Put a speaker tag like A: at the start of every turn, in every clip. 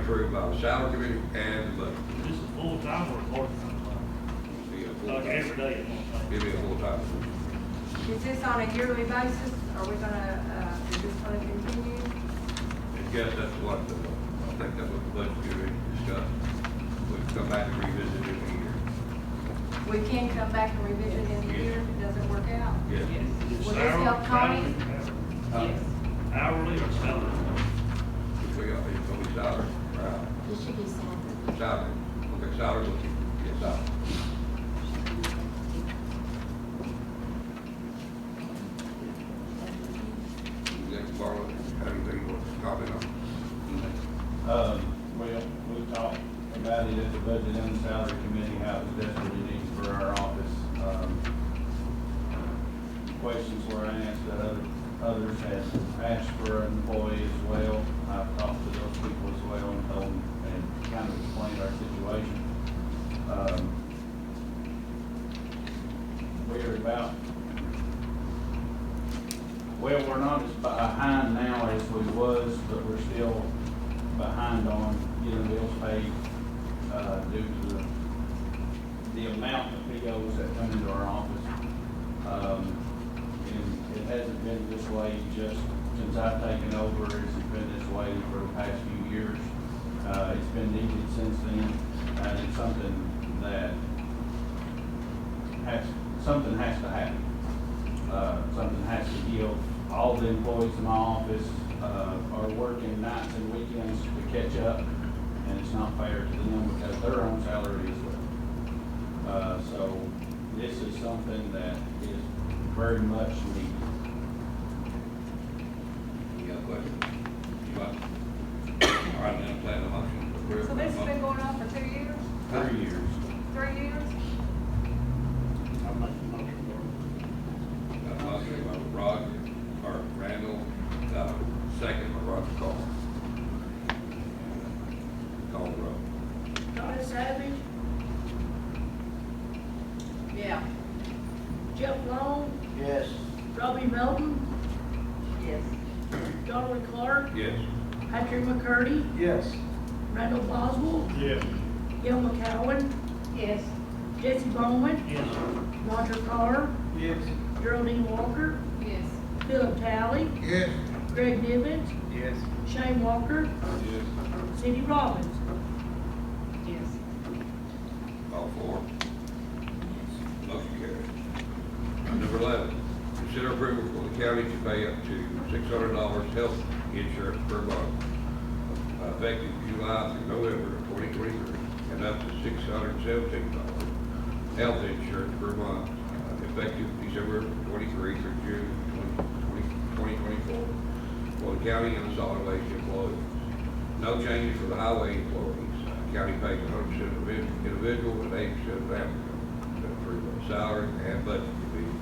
A: approved by the salary committee and the budget.
B: This is full time or part time?
A: Be a full-time.
B: Like every day at one time?
A: It'd be a full-time.
C: Is this on a yearly basis? Are we gonna, uh, is this gonna continue?
A: I guess that's what, the- I think that's what the budget committee discussed. We'd come back and revisit it in
C: We can come back and revisit it in a year if it doesn't work out.
A: a year. Yes.
B: Is it
C: Will this
B: salary,
C: help Connie?
B: hourly,
A: Uh,
B: Hourly or salary?
A: If we got, it's gonna be salary, right?
D: It should be salary.
A: Salary, okay, salary, yes, salary. Executive Barlow, have anything you want to comment on?
E: Um, well, we talked about it at the budget and the salary committee, how it was definitely needs for our office. Um, Questions were asked that other, others had asked for an employee as well. I've talked to those people as well and told them and kind of explained our situation. Um, We're about well, we're not as behind now as we was, but we're still behind on getting bills paid, uh, due to the, the amount of POs that come into our office. Um, and it hasn't been this way just since I've taken over, it's been this way for the past few years. Uh, it's been needed since then, and it's something that has, something has to happen uh, something has to give. All the employees in my office uh, are working nights and weekends to catch up, and it's not fair to them because their own salary is low. Uh, So this is something that is very much needed.
A: Any other questions? You want? All right, then, plan the motion. to approve.
C: So this has been going on for two years,
E: Three years.
C: three years?
B: I'll make the motion.
A: Got a motion by Roger, or Randall, uh, second by Roger Carr. Call the roll.
F: Donna Savage. Yeah. Jeff Long,
E: Yes.
F: Robbie Melton,
C: Yes.
F: Donald Clark,
A: Yes.
F: Patrick McCurdy,
E: Yes.
F: Randall Boswell,
B: Yes.
F: Gil McCowen,
C: Yes.
F: Jesse Bowman,
B: Yes, sir.
F: Roger Carr,
E: Yes.
F: Geraldine Walker,
C: Yes.
F: Philip Talley,
A: Yes.
F: Greg Nivens,
E: Yes.
F: Shane Walker,
E: Yes.
F: Cindy Robbins.
C: Yes.
A: All four. Motion carries. Number eleven, consider approval for the county to pay up to six hundred dollars health insurance per month uh, effective July through November of twenty twenty-three and up to six hundred seventeen dollars health insurance per month uh, effective December twenty-three through June twenty, twenty twenty-four for the county and the solid waste employees. No changes for the highway employees. Uh, County pays hundred percent of the individual and eighty percent of the applicant. That's pretty much salary and budget committee.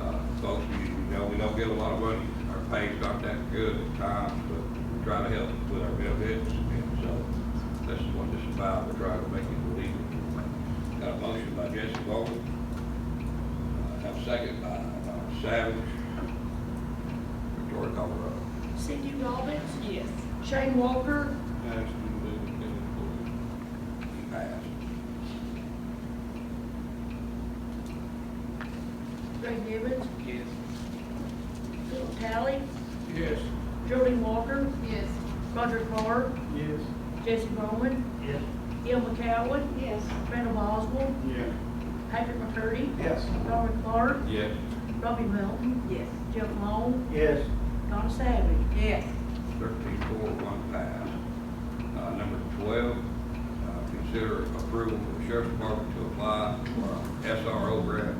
A: Uh, folks, you know, we don't get a lot of money. Our pay's not that good at times, but we try to help with our benefits. And so this is what this is about. We're trying to make it legal. Got a motion by Jesse Bowman. Uh, Have a second by uh, Savage. Victoria Colorado.
F: Cindy Robbins,
C: Yes.
F: Shane Walker,
A: Passed.
F: Greg Nivens,
E: Yes.
F: Philip Talley,
E: Yes.
F: Geraldine Walker,
C: Yes.
F: Roger Carr,
E: Yes.
F: Jesse Bowman,
B: Yes.
F: Gil McCowen,
C: Yes.
F: Randall Boswell,
E: Yeah.
F: Patrick McCurdy,
E: Yes.
F: Darwin Clark,
A: Yes.
F: Robbie Melton,
C: Yes.
F: Jeff Long,
E: Yes.
F: Donna Savage.
C: Yes.
A: Thirteen four, one pass. Uh, number twelve, uh, consider approval for the sheriff's department to apply for a SRO grant,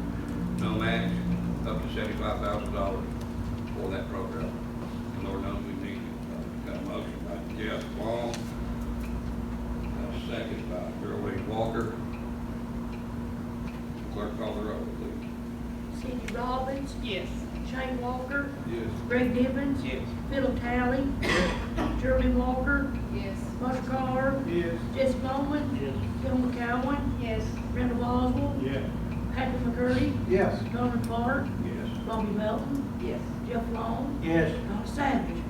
A: no match, up to seventy-five thousand dollars for that program. And Lord knows we need it. Uh, Got a motion by Jeff Long, and a second by Geraldine Walker. Clerk call the roll, please.
F: Cindy Robbins,
C: Yes.
F: Shane Walker,
A: Yes.
F: Greg Nivens, Philip Talley, Geraldine Walker,
C: Yes.
F: Roger Carr,
E: Yes.
F: Jesse Bowman,
B: Yes.
F: Gil McCowen,
C: Yes.
F: Randall Boswell,
E: Yeah.
F: Patrick McCurdy,
E: Yes.
F: Darwin Clark,
A: Yes.
F: Robbie Melton,
C: Yes.
F: Jeff Long,
E: Yes.
F: Donna Savage.